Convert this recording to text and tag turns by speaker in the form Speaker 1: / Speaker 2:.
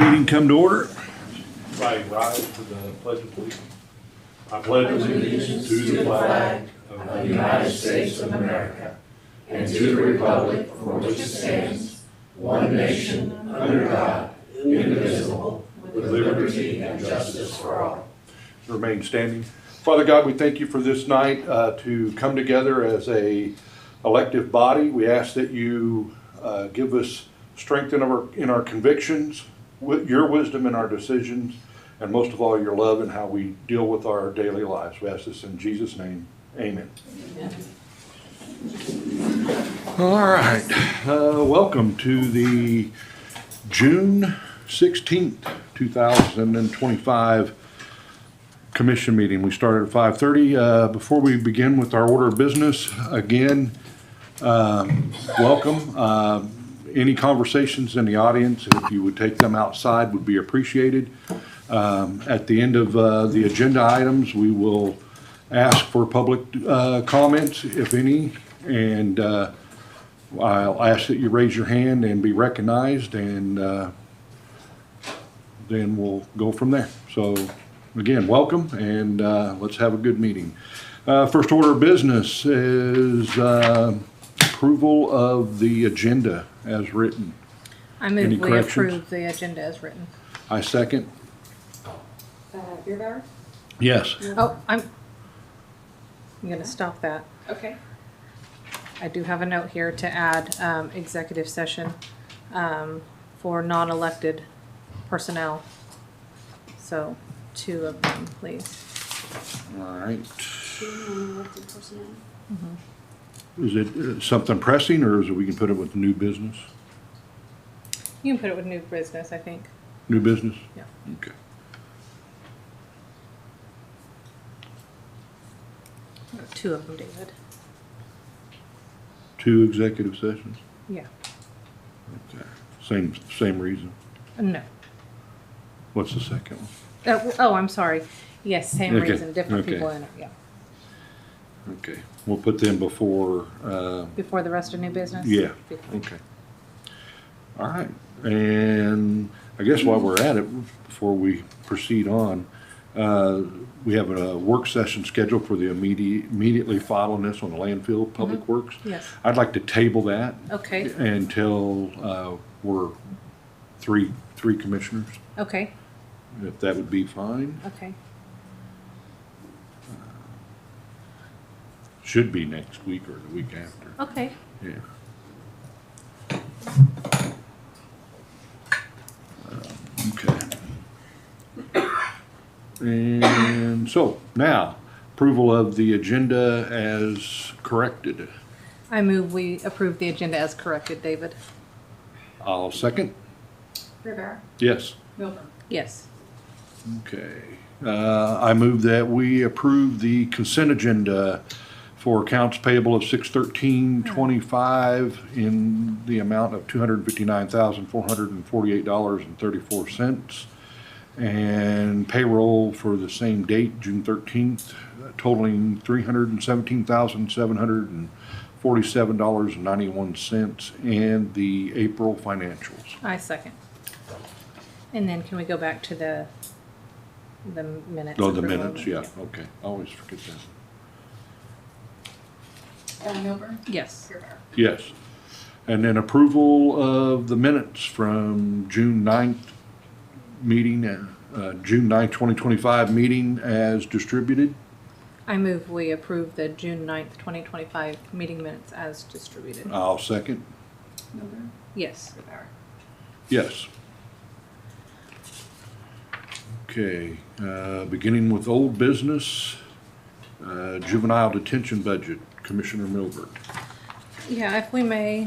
Speaker 1: Meeting come to order.
Speaker 2: Everybody rise for the pledge of allegiance. I pledge allegiance to the flag of the
Speaker 3: United States of America, and to the republic for which it stands, one nation, under God, indivisible, with liberty and justice for all.
Speaker 2: remain standing. Father God, we thank you for this night uh, to come together as a elective body. We ask that you uh, give us strength in our, in our convictions, wi- your wisdom in our decisions, and most of all, your love in how we deal with our daily lives. We ask this in Jesus' name. Amen. All right. Uh, Welcome to the June 16th, 2025 commission meeting. We started at 5:30. Uh, Before we begin with our order of business, again, um, welcome. Um, Any conversations in the audience, if you would take them outside, would be appreciated. Um, At the end of uh, the agenda items, we will ask for public uh, comments, if any, and uh, I'll ask that you raise your hand and be recognized, and uh, then we'll go from there. So again, welcome and uh, let's have a good meeting. Uh, First order of business is uh, approval of the agenda as written.
Speaker 4: I
Speaker 2: Any
Speaker 4: move we
Speaker 2: corrections?
Speaker 4: approve the agenda as written.
Speaker 2: I second.
Speaker 5: Uh, Beer Bar?
Speaker 2: Yes.
Speaker 4: Oh, I'm, I'm gonna stop that.
Speaker 5: Okay.
Speaker 4: I do have a note here to add, um, executive session, um, for non-elected personnel. So, two of them, please.
Speaker 2: All right.
Speaker 5: Non-elected personnel.
Speaker 2: Is it uh, something pressing or is it we can put it with new business?
Speaker 4: You can put it with new business, I think.
Speaker 2: New business?
Speaker 4: Yeah.
Speaker 2: Okay.
Speaker 4: Two of them, David.
Speaker 2: Two executive sessions?
Speaker 4: Yeah.
Speaker 2: Okay. Same, same reason.
Speaker 4: Uh, No.
Speaker 2: What's the second one?
Speaker 4: Oh, oh, I'm sorry. Yes, same
Speaker 2: Okay,
Speaker 4: reason, different
Speaker 2: okay.
Speaker 4: people in it, yeah.
Speaker 2: Okay. We'll put them before, uh,
Speaker 4: Before the rest of new business?
Speaker 2: Yeah.
Speaker 4: Before.
Speaker 2: Okay. All right, and I guess while we're at it, before we proceed on, uh, we have a work session scheduled for the immediate, immediately following this on the landfill, Public Works.
Speaker 4: Yes.
Speaker 2: I'd like to table that
Speaker 4: Okay,
Speaker 2: until uh, we're three, three commissioners,
Speaker 4: okay,
Speaker 2: if that would be fine.
Speaker 4: okay.
Speaker 2: Should be next week or the week after,
Speaker 4: Okay.
Speaker 2: yeah. Uh, Okay. And so now, approval of the agenda as corrected.
Speaker 4: I move we approve the agenda as corrected, David.
Speaker 2: I'll second.
Speaker 5: Beer Bar?
Speaker 2: Yes.
Speaker 5: Milburn.
Speaker 4: Yes.
Speaker 2: Okay. Uh, I move that we approve the consent agenda for accounts payable of six thirteen twenty-five in the amount of two hundred and fifty-nine thousand, four hundred and forty-eight dollars and thirty-four cents. And payroll for the same date, June thirteenth, totaling three hundred and seventeen thousand, seven hundred and forty-seven dollars and ninety-one cents, and the April financials.
Speaker 4: I second. And then can we go back to the, the minutes?
Speaker 2: Oh, the
Speaker 4: approval?
Speaker 2: minutes, yeah, okay. I Always forget that.
Speaker 5: Uh, Milburn?
Speaker 4: Yes.
Speaker 5: Beer Bar?
Speaker 2: Yes. And then approval of the minutes from June 9th meeting, uh, June 9th, 2025 meeting as distributed.
Speaker 4: I move we approve the June ninth, twenty twenty-five meeting minutes as distributed.
Speaker 2: I'll second.
Speaker 5: Milburn?
Speaker 4: Yes.
Speaker 5: Beer Bar?
Speaker 2: Yes. Okay, uh, beginning with old business, uh, juvenile detention budget, Commissioner Milbert.
Speaker 4: Yeah, if we may,